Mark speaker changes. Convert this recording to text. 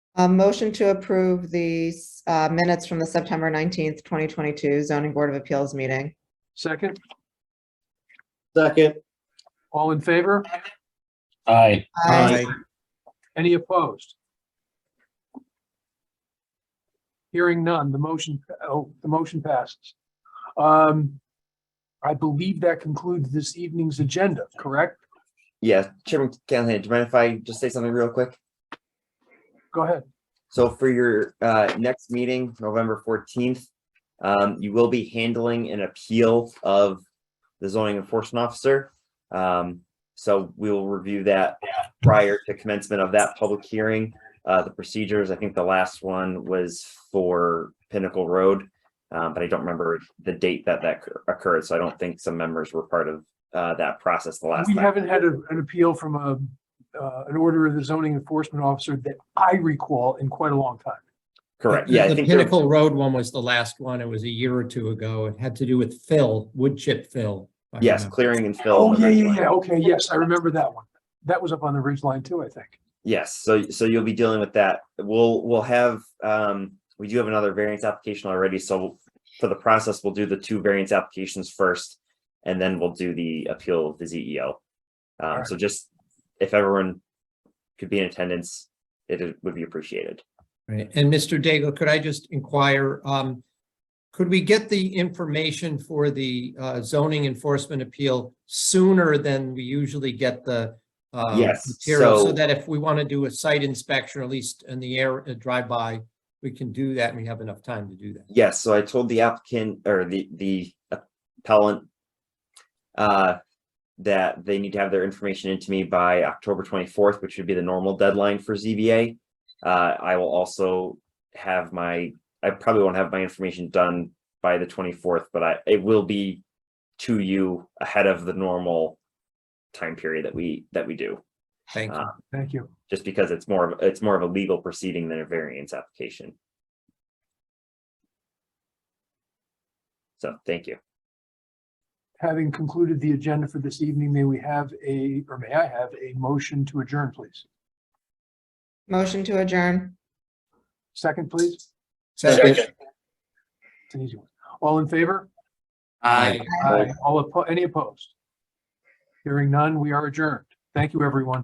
Speaker 1: A motion to approve the uh, minutes from the September 19th, 2022 zoning board of appeals meeting.
Speaker 2: Second,
Speaker 3: Second.
Speaker 2: all in favor?
Speaker 4: Aye.
Speaker 1: Aye.
Speaker 2: Any opposed? Hearing none, the motion, oh, the motion passes. Um, I believe that concludes this evening's agenda, correct?
Speaker 5: Yeah, Chairman Callahan, do you mind if I just say something real quick?
Speaker 2: Go ahead.
Speaker 5: So for your uh next meeting, November fourteenth, um, you will be handling an appeal of the zoning enforcement officer. Um, so we will review that prior to commencement of that public hearing. Uh, the procedures, I think the last one was for Pinnacle Road. uh, but I don't remember the date that that occur- occurred, so I don't think some members were part of uh that process the last
Speaker 2: We
Speaker 5: time.
Speaker 2: haven't had a- an appeal from a, uh, an order of the zoning enforcement officer that I recall in quite a long time.
Speaker 5: Correct,
Speaker 4: The-
Speaker 5: yeah. I
Speaker 4: The
Speaker 5: think there-
Speaker 4: Pinnacle Road one was the last one. It was a year or two ago. It had to do with fill, wood chip fill. if I
Speaker 5: Yes,
Speaker 4: remember.
Speaker 5: clearing and fill.
Speaker 2: Oh, yeah, yeah,
Speaker 5: eventually.
Speaker 2: yeah. Okay, yes, I remember that one. That was up on the ridge line too, I think.
Speaker 5: Yes, so so you'll be dealing with that. We'll we'll have um we do have another variance application already, so for the process, we'll do the two variance applications first. And then we'll do the appeal of the ZEO. Um,
Speaker 2: Alright.
Speaker 5: so just if everyone could be in attendance, it it would be appreciated.
Speaker 4: Right. And Mr. Daigle, could I just inquire, um, could we get the information for the uh, zoning enforcement appeal sooner than we usually get the um,
Speaker 5: Yes,
Speaker 4: material? So
Speaker 5: so-
Speaker 4: that if we want to do a site inspection, or at least in the air, a drive-by, we can do that and we have enough time to do that.
Speaker 5: Yes, so I told the applicant or the the appellant uh that they need to have their information into me by October twenty-fourth, which would be the normal deadline for ZBA. Uh, I will also have my, I probably won't have my information done by the twenty-fourth, but I, it will be to you ahead of the normal time period that we, that we do,
Speaker 4: Thank you.
Speaker 5: Uh,
Speaker 2: Thank you.
Speaker 5: just because it's more of, it's more of a legal proceeding than a variance application. So, thank you.
Speaker 2: Having concluded the agenda for this evening, may we have a, or may I have a motion to adjourn, please?
Speaker 1: Motion to adjourn.
Speaker 2: Second, please.
Speaker 4: Second.
Speaker 2: It's an easy one. All in favor?
Speaker 4: Aye.
Speaker 2: Aye. All oppo- any opposed? Hearing none, we are adjourned. Thank you, everyone.